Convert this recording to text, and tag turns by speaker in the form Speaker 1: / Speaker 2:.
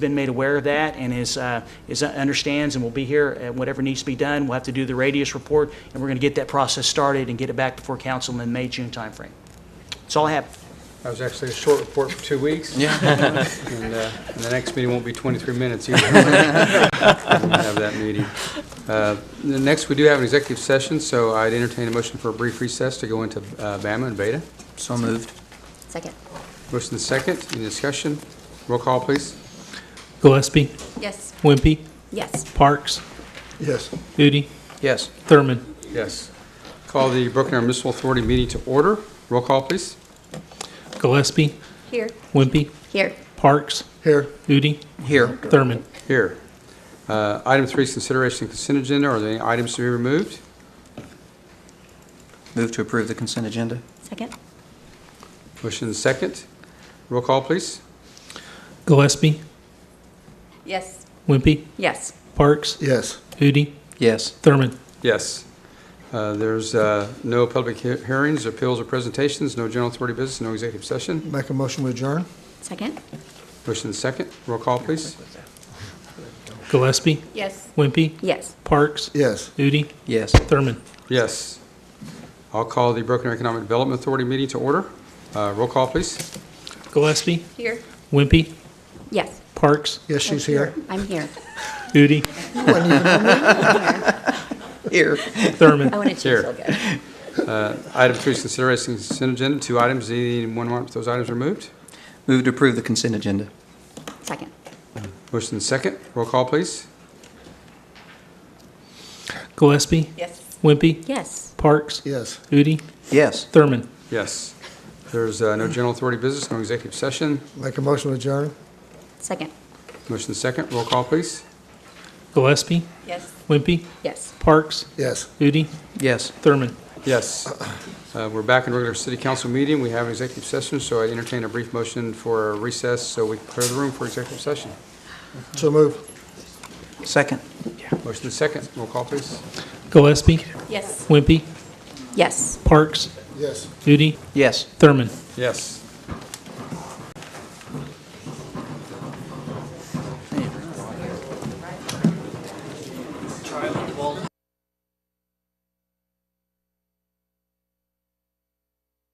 Speaker 1: been made aware of that and is, uh, is, understands and will be here at whatever needs to be done. We'll have to do the radius report, and we're going to get that process started and get it back before council in the May, June timeframe. That's all I have.
Speaker 2: That was actually a short report for two weeks. Yeah. And uh, and the next meeting won't be 23 minutes either. We'll have that meeting. Uh, the Next, we do have an executive session, so I'd entertain a motion for a brief recess to go into uh, Bama and Beta.
Speaker 3: So moved.
Speaker 4: Second.
Speaker 2: Motion is second, any discussion? Roll call, please.
Speaker 5: Gillespie,
Speaker 4: Yes.
Speaker 5: Wimpy,
Speaker 4: Yes.
Speaker 5: Parks,
Speaker 6: Yes.
Speaker 5: Udi,
Speaker 3: Yes.
Speaker 5: Thurman,
Speaker 2: Yes. Call the Broken Arrow Municipal Authority meeting to order. Roll call, please.
Speaker 5: Gillespie,
Speaker 4: Here.
Speaker 5: Wimpy,
Speaker 4: Here.
Speaker 5: Parks,
Speaker 6: Here.
Speaker 5: Udi,
Speaker 3: Here.
Speaker 5: Thurman.
Speaker 2: Here. Uh, Item three is consideration of consent agenda. Are there any items to be removed?
Speaker 3: Move to approve the consent agenda?
Speaker 4: Second.
Speaker 2: Motion is second, roll call, please.
Speaker 5: Gillespie,
Speaker 4: Yes.
Speaker 5: Wimpy,
Speaker 4: Yes.
Speaker 5: Parks,
Speaker 6: Yes.
Speaker 5: Udi,
Speaker 3: Yes.
Speaker 5: Thurman.
Speaker 2: Yes. Uh, There's uh, no public he- hearings, appeals, or presentations, no general authority business, no executive session.
Speaker 6: Make a motion to adjourn?
Speaker 4: Second.
Speaker 2: Motion is second. Roll call, please.
Speaker 5: Gillespie,
Speaker 4: Yes.
Speaker 5: Wimpy,
Speaker 4: Yes.
Speaker 5: Parks,
Speaker 6: Yes.
Speaker 5: Udi,
Speaker 3: Yes.
Speaker 5: Thurman.
Speaker 2: Yes. I'll call the Broken Arrow Economic Development Authority meeting to order. Uh, Roll call, please.
Speaker 5: Gillespie,
Speaker 4: Here.
Speaker 5: Wimpy,
Speaker 4: Yes.
Speaker 5: Parks,
Speaker 6: Yes, she's here.
Speaker 4: I'm here.
Speaker 5: Udi,
Speaker 3: Here.
Speaker 4: I
Speaker 5: Thurman.
Speaker 4: want to cheer
Speaker 2: Here.
Speaker 4: so good.
Speaker 2: Item three is consideration of consent agenda, two items, anyone want those items removed?
Speaker 3: Move to approve the consent agenda?
Speaker 4: Second.
Speaker 2: Motion is second. Roll call, please.
Speaker 5: Gillespie,
Speaker 4: Yes.
Speaker 5: Wimpy,
Speaker 4: Yes.
Speaker 5: Parks,
Speaker 6: Yes.
Speaker 5: Udi,
Speaker 3: Yes.
Speaker 5: Thurman.
Speaker 2: Yes. There's uh, no general authority business, no executive session.
Speaker 6: Make a motion to adjourn?
Speaker 4: Second.
Speaker 2: Motion is second. Roll call, please.
Speaker 5: Gillespie,
Speaker 4: Yes.
Speaker 5: Wimpy,
Speaker 4: Yes.
Speaker 5: Parks,
Speaker 6: Yes.
Speaker 5: Udi,
Speaker 3: Yes.
Speaker 5: Thurman.
Speaker 2: Yes. Uh, We're back in regular city council meeting. We have an executive session, so I entertain a brief motion for a recess so we can clear the room for executive session.
Speaker 6: So move.
Speaker 3: Second?
Speaker 2: Motion is second. Roll call, please.
Speaker 5: Gillespie,
Speaker 4: Yes.
Speaker 5: Wimpy,
Speaker 4: Yes.
Speaker 5: Parks,
Speaker 6: Yes.
Speaker 5: Udi,
Speaker 3: Yes.
Speaker 5: Thurman.
Speaker 2: Yes.